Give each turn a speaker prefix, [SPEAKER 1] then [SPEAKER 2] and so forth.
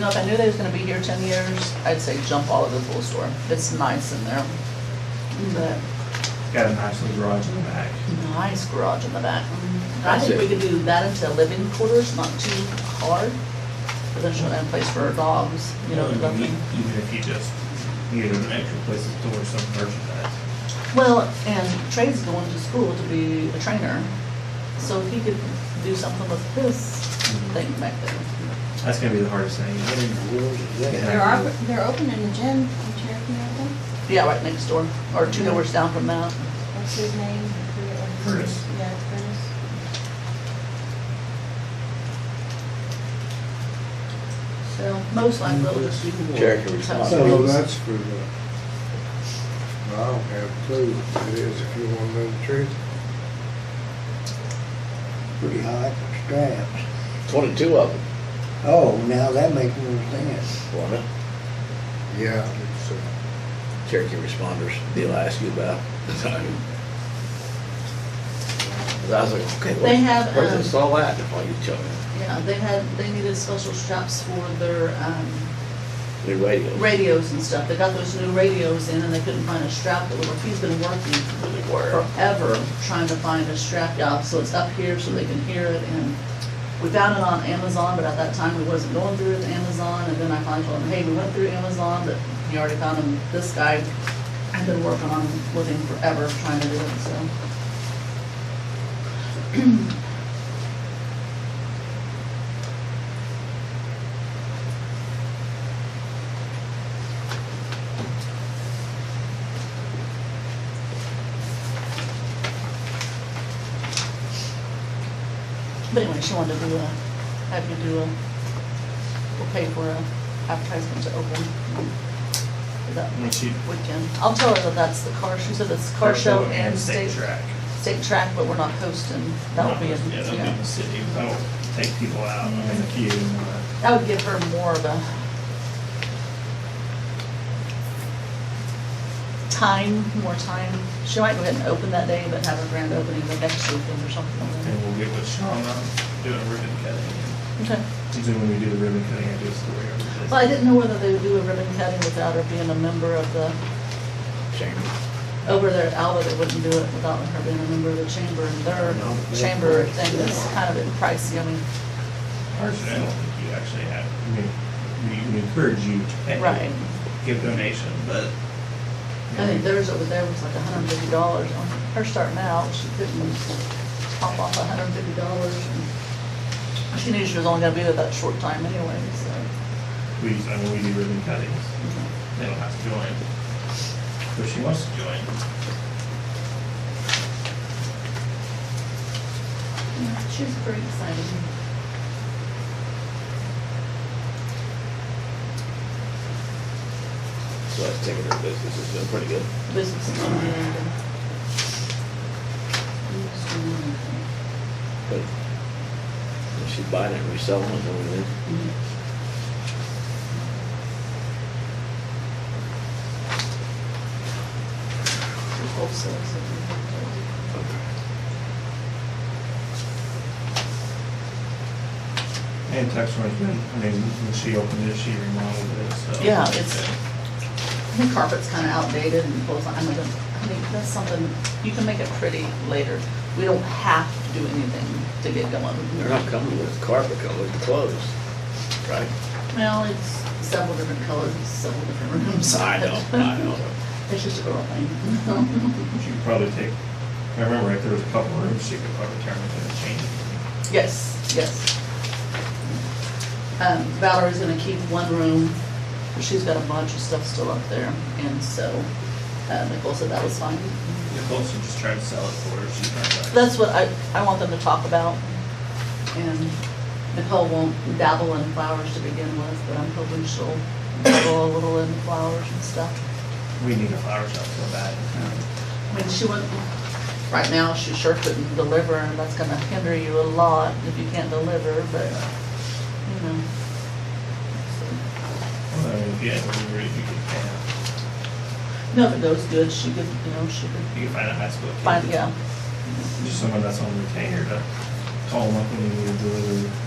[SPEAKER 1] know, if I knew they was gonna be here ten years, I'd say jump all over the pool store. It's nice in there. But
[SPEAKER 2] Got a nice little garage in the back.
[SPEAKER 1] nice garage in the back. I
[SPEAKER 3] That's
[SPEAKER 1] think we
[SPEAKER 3] it.
[SPEAKER 1] could do that into living quarters, not too hard. But then show them a place for our dogs, you know,
[SPEAKER 2] Even
[SPEAKER 1] nothing.
[SPEAKER 2] even if you just need an extra place to store some merchandise.
[SPEAKER 1] Well, and Trey's going to school to be a trainer, so if he could do something with this thing back there.
[SPEAKER 2] That's gonna be the hardest thing.
[SPEAKER 4] They're, op- they're opening a gym in Cherokee, I think.
[SPEAKER 1] Yeah, right next door, or two doors down from that.
[SPEAKER 4] What's his name? I forget what his-
[SPEAKER 2] Curtis.
[SPEAKER 4] Yeah, it's Curtis.
[SPEAKER 1] So most likely they'll just be.
[SPEAKER 3] Cherokee was
[SPEAKER 1] So-
[SPEAKER 3] not.
[SPEAKER 5] So that's for the, I don't have a clue what it is, if you want to know the truth. Pretty high for straps.
[SPEAKER 3] Twenty-two of them,
[SPEAKER 5] Oh, now that makes more sense.
[SPEAKER 3] wasn't it?
[SPEAKER 5] Yeah, it's, uh,
[SPEAKER 3] Cherokee responders, deal I asked you about. So- 'Cause I was like, okay,
[SPEAKER 1] They have,
[SPEAKER 3] where- where's
[SPEAKER 1] um,
[SPEAKER 3] this all at? While you tell me,
[SPEAKER 1] Yeah, they had, they needed special straps for their, um,
[SPEAKER 3] new radio.
[SPEAKER 1] radios and stuff. They got those new radios in and they couldn't find a strap that would work. He's been working forever trying to find a strap job, so it's up here so they can hear it and we found it on Amazon, but at that time we wasn't going through it, Amazon, and then I finally told him, hey, we went through Amazon, but you already found him, this guy. I've been working on, him with him forever trying to do it, so. But anyway, she wanted to do a, have you do a, we'll pay for a advertisement to open. for That
[SPEAKER 2] When she-
[SPEAKER 1] weekend. I'll tell her that that's the car, she said it's car show and state,
[SPEAKER 2] track.
[SPEAKER 1] state track, but we're not posting. That would be,
[SPEAKER 2] Yeah, that'll be in
[SPEAKER 1] a
[SPEAKER 2] the city. That'll take people out in the queue and uh, all that.
[SPEAKER 1] that would give her more of a time, more time. She might go ahead and open that day, but have a grand opening the next weekend or something like
[SPEAKER 2] And we'll get with Sean on doing ribbon cutting.
[SPEAKER 1] that. Okay.
[SPEAKER 2] Usually when we do the ribbon cutting, I do a story over this.
[SPEAKER 1] Well, I didn't know whether they would do a ribbon cutting without her being a member of the,
[SPEAKER 3] Chamber.
[SPEAKER 1] over there at Alba, they wouldn't do it without her being a member of the chamber, and their chamber thing is kind of pricey, I mean,
[SPEAKER 2] Personally, I don't think you actually have, I mean, we- we encourage you to.
[SPEAKER 1] Right.
[SPEAKER 2] Give donation, but.
[SPEAKER 1] I think theirs over there was like hundred and fifty dollars, on her starting out, she couldn't pop off hundred and fifty dollars, and she knew she was only gonna be there that short time anyway, so.
[SPEAKER 2] We, I mean, we do ribbon cuttings. They don't have to join. But she wants to join.
[SPEAKER 1] yeah, She was pretty excited.
[SPEAKER 3] So that's taking their business, it's been pretty good.
[SPEAKER 1] Business is doing good.
[SPEAKER 3] But if she's buying it, reselling it, and everything.
[SPEAKER 1] Wholesale, so.
[SPEAKER 2] And Texmark's been, I mean, when she opened it, she remodeled it, so.
[SPEAKER 1] Yeah, it's- The carpet's kind of outdated and pulls, I'm like, I mean, that's something, you can make it pretty later. We don't have to do anything to get going.
[SPEAKER 3] They're not coming with carpet, coming with the clothes, right?
[SPEAKER 1] Well, it's several different colors, several different rooms.
[SPEAKER 3] I know, I know.
[SPEAKER 1] It's just a girl thing.
[SPEAKER 2] She could probably take, I remember if there was a couple rooms, she could probably turn it and change it.
[SPEAKER 1] Yes, yes. Um, Valerie's gonna keep one room, but she's got a bunch of stuff still up there, and so, uh, Nicole said that was fine.
[SPEAKER 2] Nicole should just try to sell it for her, she's not like.
[SPEAKER 1] That's what I, I want them to talk about, and Nicole won't dabble in flowers to begin with, but I'm hoping she'll dabble a little in flowers and stuff.
[SPEAKER 2] We need a flower shop so bad.
[SPEAKER 1] I mean, she wouldn't, right now, she sure couldn't deliver, and that's gonna hinder you a lot if you can't deliver, but, you know. so.
[SPEAKER 2] Well, yeah, we really, you could, yeah,
[SPEAKER 1] No, if it goes good, she could, you know, she could
[SPEAKER 2] you could find a high school kid.
[SPEAKER 1] find, yeah.
[SPEAKER 2] Just someone that's on retainer to call them up when you need to deliver